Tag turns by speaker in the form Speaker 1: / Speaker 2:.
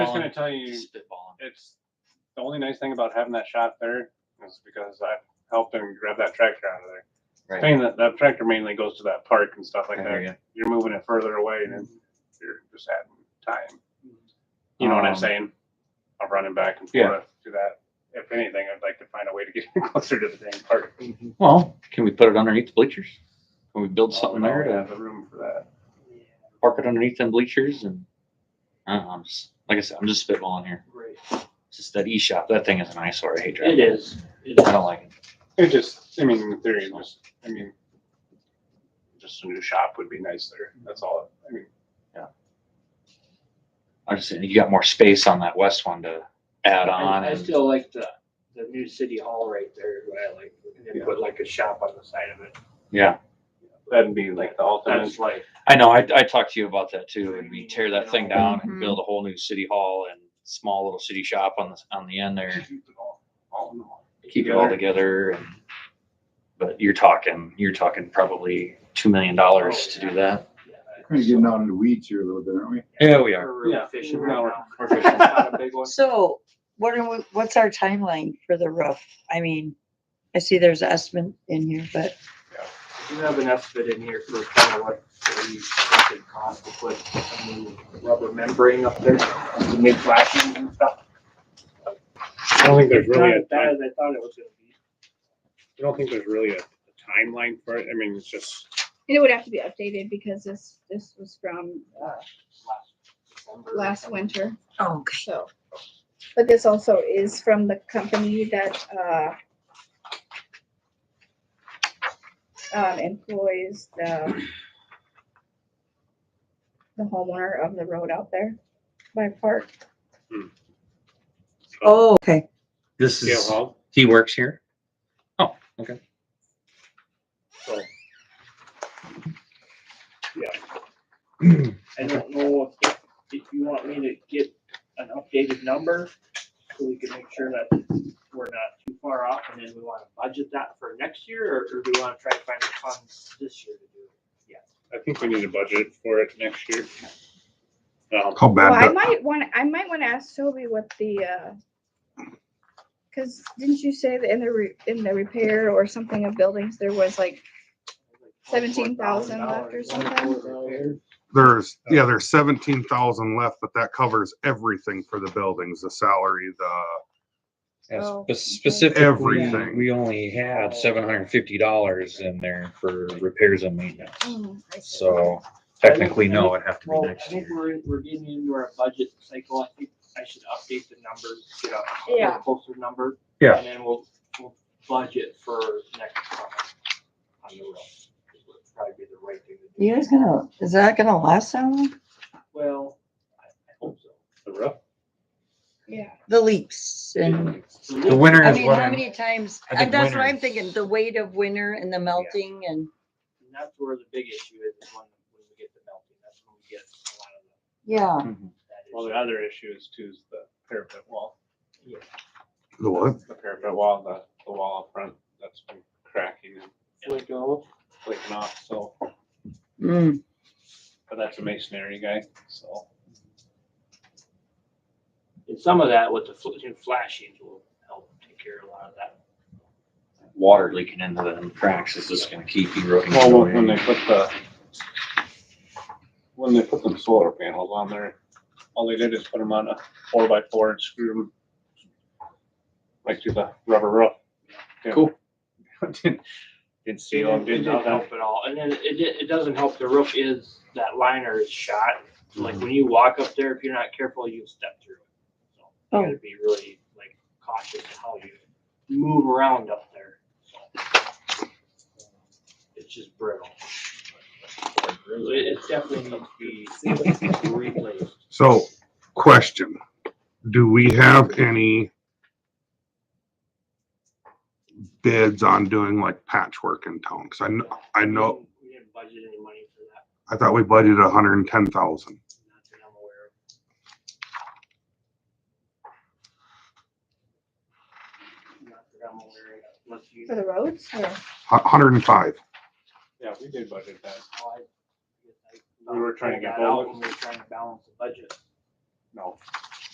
Speaker 1: just gonna tell you,
Speaker 2: Just spitballing.
Speaker 1: it's the only nice thing about having that shop there is because I helped him grab that tractor out of there.
Speaker 2: Right.
Speaker 1: Thing that that tractor mainly goes to that park and stuff like
Speaker 2: I
Speaker 1: that.
Speaker 2: hear ya.
Speaker 1: You're moving it further away and then you're just having time. You know what I'm
Speaker 2: Um,
Speaker 1: saying? I'm running back and
Speaker 2: Yeah.
Speaker 1: forth to that. If anything, I'd like to find a way to get closer to the dang park.
Speaker 2: Well, can we put it underneath the bleachers? Can we build something there
Speaker 1: I have
Speaker 2: to
Speaker 3: Uh,
Speaker 1: the room for that.
Speaker 2: park it underneath them bleachers and? I don't know, I'm just, like I said, I'm just spitballing here.
Speaker 3: Great.
Speaker 2: It's just that e-shop, that thing is an eyesore. I hate driving.
Speaker 3: It is. It
Speaker 2: I
Speaker 3: is.
Speaker 2: don't like it.
Speaker 1: It just, I mean, in theory, it just, I mean, just a new shop would be nice there. That's all. I mean,
Speaker 2: I just, you got more space on that west one to add on.
Speaker 3: I, I
Speaker 2: and-
Speaker 3: still like the, the new city hall right there, is what I like, and then put like a shop on the side of it.
Speaker 2: Yeah,
Speaker 1: that'd be like the ultimate.
Speaker 3: That's like,
Speaker 2: I know. I, I talked to you about that too. And we tear that thing down and build a whole new city hall and small little city shop on the, on the end there.
Speaker 1: Keep it all- all in all.
Speaker 2: keep it all together and, but you're talking, you're talking probably two million dollars to do that.
Speaker 3: yeah.
Speaker 4: Kind of getting out in the weeds here a little bit, aren't we?
Speaker 2: Yeah, we
Speaker 3: We're really
Speaker 1: Yeah.
Speaker 3: efficient
Speaker 1: No, we're-
Speaker 3: right now.
Speaker 2: We're fishing.
Speaker 1: Not a big one.
Speaker 5: So what are, we- what's our timeline for the roof? I mean, I see there's an estimate in here, but
Speaker 3: You have an estimate in here for kind of what we think it costs to put a new rubber membrane up there, some new flashing and stuff.
Speaker 1: I don't think there's really
Speaker 3: Not
Speaker 1: a
Speaker 3: as bad
Speaker 1: time,
Speaker 3: as I thought it was gonna be.
Speaker 1: I don't think there's really a a timeline for it. I mean, it's just,
Speaker 6: And it would have to be updated because this, this was from
Speaker 3: Yeah, last December or
Speaker 6: last
Speaker 3: something.
Speaker 6: winter,
Speaker 5: oh,
Speaker 6: so. But this also is from the company that, uh, um, employs the the homeowner of the road out there by park.
Speaker 5: oh, okay.
Speaker 2: This
Speaker 1: yeah,
Speaker 2: is,
Speaker 1: well,
Speaker 2: he works here? Oh, okay.
Speaker 3: I don't know if, if you want me to get an updated number, so we can make sure that we're not too far off, and then we wanna budget that for next year, or, or do we wanna try to find the funds this year to do it?
Speaker 1: I think we need a budget for it next year. Um,
Speaker 4: How
Speaker 6: Well, I
Speaker 4: bad,
Speaker 6: might want, I might want to ask Toby what the, uh, cause didn't you say that in the, re- in the repair or something of buildings, there was like, $17,000 left or something?
Speaker 3: something?
Speaker 4: there's, yeah, there's seventeen thousand left, but that covers everything for the buildings, the salary, the,
Speaker 7: Yeah,
Speaker 6: Oh,
Speaker 7: spe-
Speaker 6: okay.
Speaker 7: Specifically,
Speaker 4: Everything.
Speaker 7: we only had seven hundred and fifty dollars in there for repairs and maintenance,
Speaker 6: Mm, I see.
Speaker 7: so technically, no, it'd have to be
Speaker 3: Well, I
Speaker 7: next
Speaker 3: think
Speaker 7: year.
Speaker 3: we're, we're getting into our budget cycle, I think I should update the numbers, get a get
Speaker 6: Yeah.
Speaker 3: a closer number.
Speaker 7: Yeah.
Speaker 3: And then we'll, we'll budget for next summer on the road. Would Probably be the right thing to do.
Speaker 5: You guys gonna, is that gonna last how long?
Speaker 3: Well, I I hope so.
Speaker 1: The roof,
Speaker 6: Yeah.
Speaker 5: The leaks and,
Speaker 7: The winter
Speaker 5: I
Speaker 7: is
Speaker 5: mean,
Speaker 7: what
Speaker 5: how
Speaker 7: I'm,
Speaker 5: many times,
Speaker 7: I think
Speaker 5: and that's what
Speaker 7: winter
Speaker 5: I'm thinking, the weight of winter and the melting and,
Speaker 3: And that's where the big issue is, is when, when we get the melting, that's when we get a lot of the-
Speaker 5: yeah.
Speaker 7: Mhm.
Speaker 3: that issue.
Speaker 1: well, the other issue is too is the parapet wall,
Speaker 3: Yeah.
Speaker 4: the what?
Speaker 1: the parapet wall, the, the wall up front, that's been cracking and
Speaker 3: Like, oh,
Speaker 1: flicking off, so,
Speaker 5: Mm.
Speaker 1: but that's a masonry guy, so.
Speaker 3: And some of that with the fl- you know, flashings will help take care of a lot of that.
Speaker 2: Water leaking into the cracks is just gonna keep eroding.
Speaker 1: Well,
Speaker 2: away.
Speaker 1: when they put the, when they put them solar panels on there, all they did is put them on a four by four and screw them right to the rubber roof. Yeah.
Speaker 2: Cool.
Speaker 1: Didn't didn't seal them,
Speaker 3: It didn't
Speaker 1: didn't nothing.
Speaker 3: help at all, and then it, it doesn't help, the roof is, that liner is shot, like when you walk up there, if you're not careful, you step through it. So You gotta be really like cautious of how you move around up there, so. It's just brittle. It, it definitely needs to be replaced.
Speaker 4: So, question, do we have any bids on doing like patchwork in town? Cause I, kn- I know,
Speaker 3: We didn't budget any money for that,
Speaker 4: I thought we budgeted hundred and ten thousand.
Speaker 3: not that I'm aware of. Not that I'm aware of, unless you.
Speaker 6: For the roads or?
Speaker 4: hundred and five.
Speaker 1: Yeah, we did budget that.
Speaker 3: how I- I
Speaker 1: We were trying to get
Speaker 3: got out
Speaker 1: both.
Speaker 3: when We were trying to balance the budget.
Speaker 1: No,